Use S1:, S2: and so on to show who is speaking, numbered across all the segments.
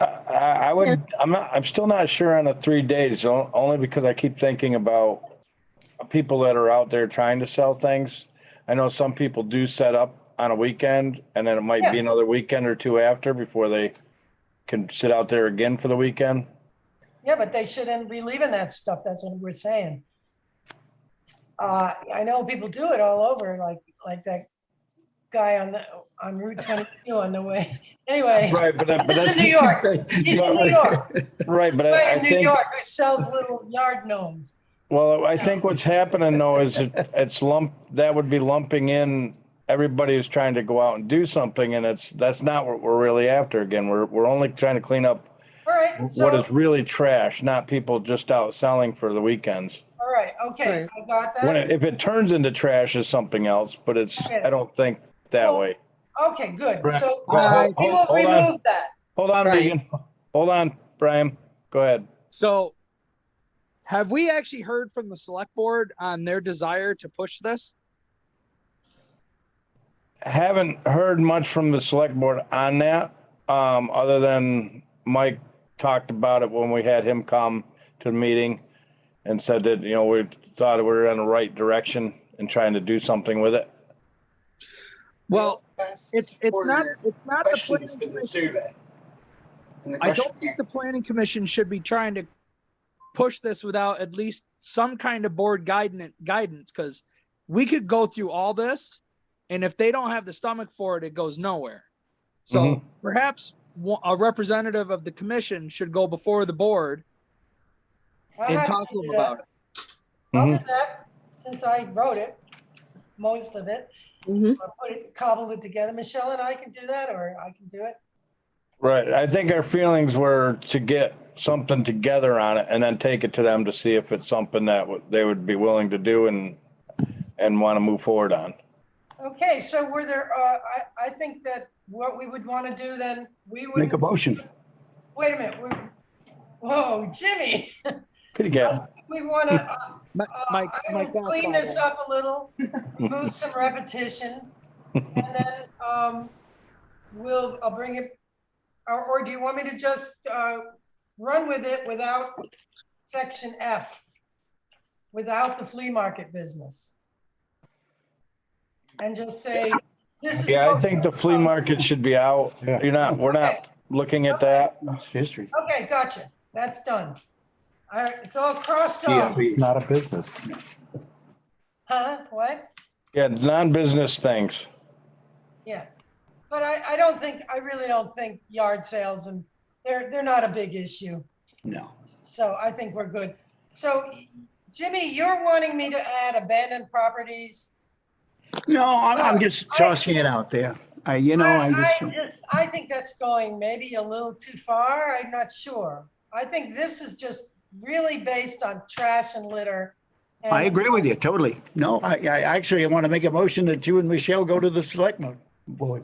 S1: I, I would, I'm not, I'm still not sure on the three days, o- only because I keep thinking about people that are out there trying to sell things. I know some people do set up on a weekend and then it might be
S2: Yeah.
S1: another weekend or two after before they can sit out there again for the weekend.
S2: Yeah, but they shouldn't be leaving that stuff. That's what we're saying. Uh, I know people do it all over, like, like that guy on the, on Route twenty-two on the way. Anyway,
S1: Right, but. that- but
S2: It's
S1: that's-
S2: in New York. he's in New York,
S1: Right, but I I
S2: right in New
S1: think,
S2: York, who sells little yard gnomes.
S1: well, I think what's happening though is it- it's lump, that would be lumping in everybody who's trying to go out and do something and it's, that's not what we're really after again. We're, we're only trying to clean up
S2: All right, so,
S1: what is
S2: all
S1: really trash, not people just out selling for the weekends.
S2: right, okay, I got
S1: When, it-
S2: that.
S1: if it turns into trash is something else, but it's, I don't think that way.
S2: Okay, good.
S3: Uh,
S2: So
S1: Well,
S2: we
S1: hold-
S2: will
S1: hold on.
S2: remove that.
S1: Hold on,
S3: Right.
S1: Megan. Hold on, Brian. Go ahead.
S3: So have we actually heard from the select board on their desire to push this?
S1: Haven't heard much from the select board on that, um, other than Mike talked about it when we had him come to the meeting and said that, you know, we thought we were in the right direction and trying to do something with it.
S3: Well, it's, it's not, it's not the planning commission. I don't think the planning commission should be trying to push this without at least some kind of board guidance, guidance, because we could go through all this, and if they don't have the stomach for it, it goes nowhere. So
S1: Mhm.
S3: perhaps wa- a representative of the commission should go before the board
S2: I'll
S3: and
S2: have to
S3: talk to
S2: do
S3: them
S2: that.
S3: about it.
S2: I'll
S4: Mm-hmm.
S2: do that, since I wrote it, most of it.
S4: Mm-hmm.
S5: Mhm.
S2: I put it, cobbled it together. Michelle and I can do that, or I can do it.
S1: Right. I think our feelings were to get something together on it and then take it to them to see if it's something that would- they would be willing to do and, and want to move forward on.
S2: Okay, so were there, uh, I, I think that what we would want to do then, we would,
S4: Make a motion.
S2: wait a minute. we're- Whoa, Jimmy,
S1: Could you get,
S2: we uh, want to,
S3: Mi- Mike, Mike, that's
S2: clean
S3: all.
S2: this up a little, remove some repetition. And then, um, we'll, I'll bring it, or, or do you want me to just, uh, run with it without section F? Without the flea market business? And just say, this is.
S1: yeah, I think the flea
S2: um,
S1: market should be out.
S4: Yeah.
S1: You're not, we're not looking at that.
S4: It's history.
S2: Okay, gotcha. That's done. All right, it's all crossed
S4: Yeah,
S2: off.
S4: it's not a business.
S2: Huh? What?
S1: Yeah, non-business things.
S2: Yeah. But I, I don't think, I really don't think yard sales and they're, they're not a big issue.
S4: No.
S2: So I think we're good. So Jimmy, you're wanting me to add abandoned properties?
S4: No, I'm, I'm just tossing it out there. I, you know, I
S2: I
S4: just,
S2: just- I think that's going maybe a little too far. I'm not sure. I think this is just really based on trash and litter. and-
S4: I agree with you totally. No, I, I actually want to make a motion that you and Michelle go to the selectmen. Boy,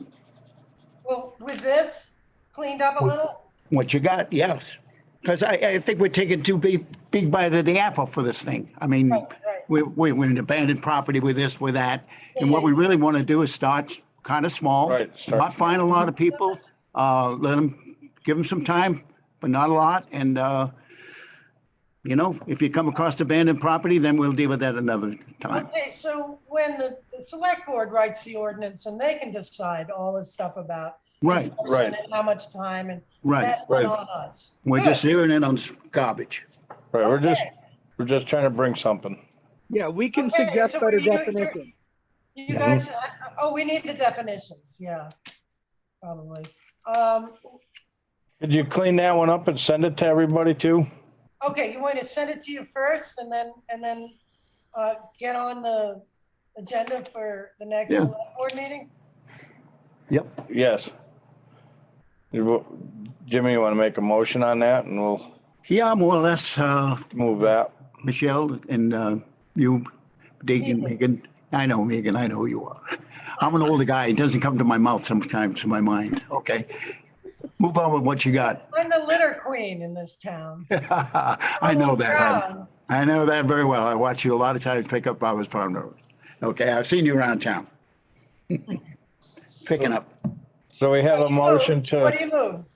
S2: Well, with this cleaned up a little?
S4: what you got, yes. Because I, I think we're taking too big, big bite of the apple for this thing. I mean,
S2: Right, right.
S4: we, we, we're in abandoned property with this, with that. And what we really want to do is start kind of small.
S1: Right, start
S4: Not find a lot of people, uh, let them, give them some time, but not a lot. And, uh, you know, if you come across abandoned property, then we'll deal with that another time.
S2: Okay, so when the, the select board writes the ordinance and they can decide all this stuff about.
S4: Right,
S1: right.
S2: and How much time and.
S4: right.
S2: that's
S1: right.
S2: On us.
S4: We're
S2: Good.
S4: just zeroing in on s- garbage.
S1: Right, we're just,
S2: Okay.
S1: we're just trying to bring something.
S3: Yeah, we can
S2: Okay,
S3: suggest
S2: so
S3: better
S2: you- you-
S3: definitions.
S2: You guys, oh, we need the definitions, yeah, probably. Um,
S1: Could you clean that one up and send it to everybody too?
S2: okay, you want to send it to you first and then, and then, uh, get on the agenda for the next
S4: Yeah.
S2: select board meeting?
S4: Yep.
S1: Yes. You wa- Jimmy, you want to make a motion on that and we'll
S4: Yeah, more or less, uh,
S1: move that?
S4: Michelle and uh, you, Deacon, Megan. I know, Megan, I know who you are. I'm an older guy. It doesn't come to my mouth sometimes to my mind. Okay. Move on with what you got.
S2: I'm the litter queen in this town.
S4: I know that. I- I know that very well. I watch you a lot of times pick up Barbara's farm road. Okay, I've seen you around town. Picking up.
S1: So we have a motion to.
S2: What do you move?